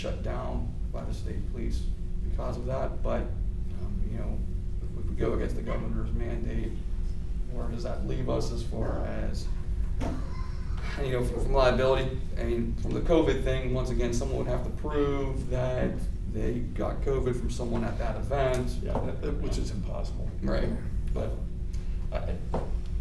shut down by the state police because of that, but, um, you know, if we go against the governor's mandate, where does that leave us as far as, you know, from liability, I mean, from the COVID thing, once again, someone would have to prove that they got COVID from someone at that event. Yeah, that- that- which is impossible. uh, Right, but I,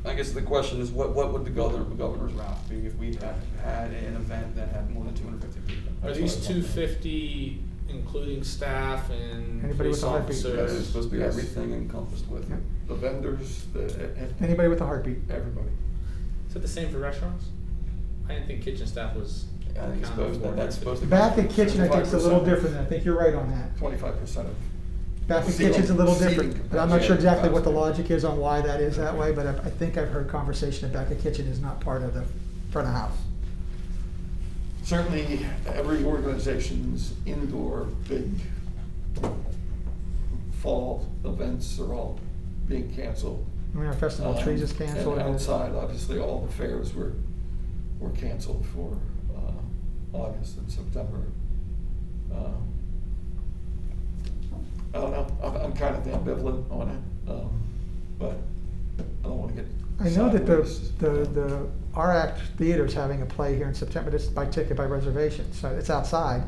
I guess the question is, what, what would the governor, the governor's route be if we had, had an event that had more than two hundred fifty people? Are these two fifty including staff and Anybody with police a heartbeat? Yeah, It's officers? supposed to be Yes. everything encompassed with it. The vendors, the, e- e- Anybody with a heartbeat? everybody. Is that the same for restaurants? I didn't think kitchen staff was I think accounted it's supposed, for. that, that's supposed to be. Bath and kitchen, I think, is a little 25%. different, I think you're right on that. Twenty-five percent of, Bath and Seating- kitchen's a little seating different, but I'm not sure capacity. exactly what the logic is on why that is that way, but I, I think I've heard conversation that back and kitchen is not part of the front of house. certainly every organization's indoor big fall events are all being canceled. I mean, our festival of trees is Um, canceled. And outside, obviously, all the fairs were, were canceled for, uh, August and September. Um, I don't know, I'm, I'm kind of ambivalent on it, um, but I don't wanna get I know that the, sideways. the, the, our act theater's having a play here in September, it's by ticket, by reservation, so it's outside.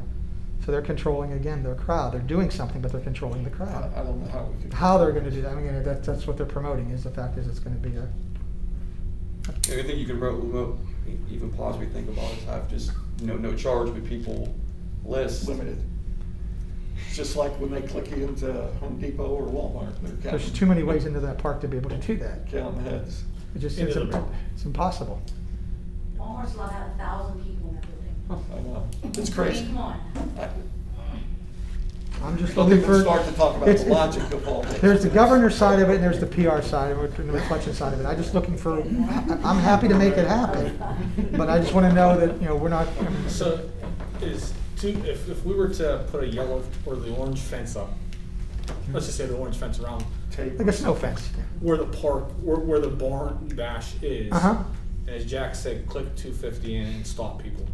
So they're controlling again their crowd, they're doing something, but they're controlling the I, I crowd. don't know how we could. How they're gonna do that, I mean, that, that's what they're promoting, is the fact is it's gonna be a, Yeah, I think you can ro- remote, even possibly think about is have just, no, no charge, but people list. Limited. It's Just like when they click you into Home Depot or Walmart, they're counting. there's too many ways into that park to be able to do that. Counting heads. It just, Into it's, the impo- river. it's impossible. Walmart's allowed to have a thousand people in that building. I know, it's I mean, crazy. Come on. I- I'm just Well, looking people for. start to talk about it's- the it's- logic of all this. There's the governor's side of it and there's the PR side of it, and the reflection side of it. I'm just looking for, I- I'm happy to make it happen, but I just wanna know that, you know, we're not. I mean, So is two, if, if we were to put a yellow or the orange fence up, let's just say the orange fence around Take- Like a snow fence. where the park, where, where the barn bash is. Uh-huh. And as Jack said, click two fifty in and stop people.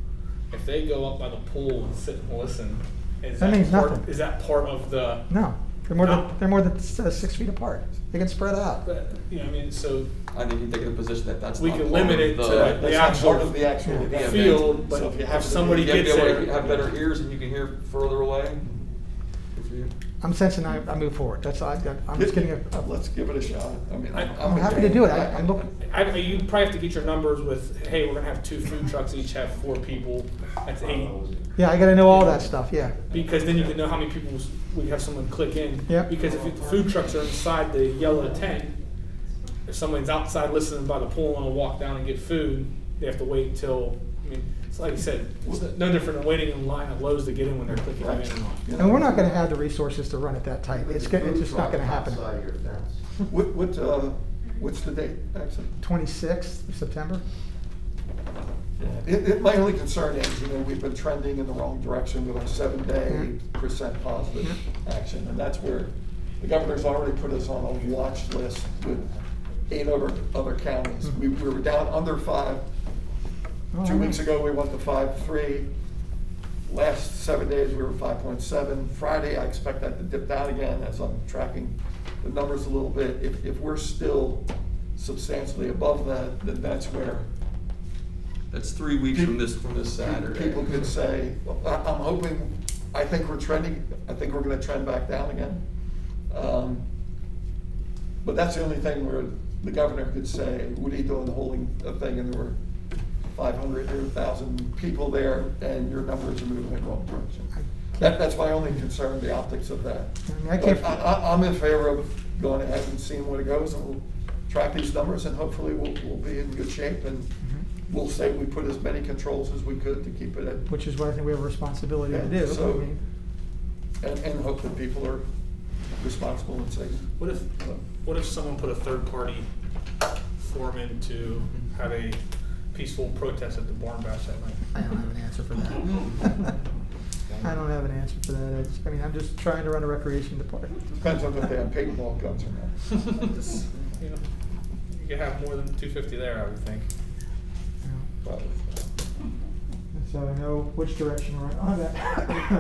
If they go up by the pool and sit and listen, is That that means part, nothing. is that part of the? No, they're more No. than, they're more than s- uh, six feet apart. They can spread out. But, you know, I mean, so I think you take the position that that's. We not can part of limit it the- to That's the not actual part of the actual Yeah. event. field, So but you have if to- somebody You have to be gets able there. to have better ears and you can hear further away. If you- I'm sensing I, I move forward. That's, I, I'm just getting a, a- Uh, Let's give it a shot. I mean, I- I'm I'm. I'm happy to okay. do it. I, I'm looking, I, I- you probably have to get your numbers with, hey, we're gonna have two food trucks, each have four people, that's eight. yeah, I gotta know all that stuff, yeah. Because then you can know how many people s- we have someone click in. Yeah. Because if the food trucks are inside the yellow tent, if someone's outside listening by the pool and wanna walk down and get food, they have to wait until, I mean, it's like you said, it's no different than waiting in line at Lowe's to get in when they're clicking in and Yeah. line. And we're not gonna have the resources to run it that tight. It's, go- it's Food just not truck gonna happen. Outside of your fence. What, what, uh, what's the date, actually? Twenty-sixth of September? It, it, my only concern is, you know, we've been trending in the wrong direction with our seven-day Mm-hmm. percent positive action, and that's where the governor's already put us on a watch list with eight other, other counties. Mm-hmm. We, we were down under five. Oh, I Two weeks know. ago, we went to five, three. Last seven days, we were five point seven. Friday, I expect that to dip down again as I'm tracking the numbers a little bit. If, if we're still substantially above that, then that's where That's three weeks from this, from this Saturday. People could say, well, I- I'm hoping, I think we're trending, I think we're gonna trend back down again. Um, But that's the only thing where the governor could say, what are you doing holding a thing and there were five hundred or thousand people there and your numbers are moving in the wrong direction. That, that's my only concern, the optics of that. I mean, I But can't- I, I, I'm in favor of going ahead and seeing where it goes and we'll track these numbers and hopefully we'll, we'll be in good shape and Mm-hmm. we'll say we put as many controls as we could to keep it at, Which is what I think we have a responsibility to Yeah, do. so- I mean, and, and hope that people are responsible and safe. What if, what if someone put a third-party foreman to have a peaceful protest at the barn bash that night? I don't have an answer for that. I don't have an answer for that. I just- I mean, I'm just trying to run a recreation department. Depends on if they have paintball guns or not. Just, you know, you could have more than two fifty there, I would think. You know, Probably. So I know which direction we're on.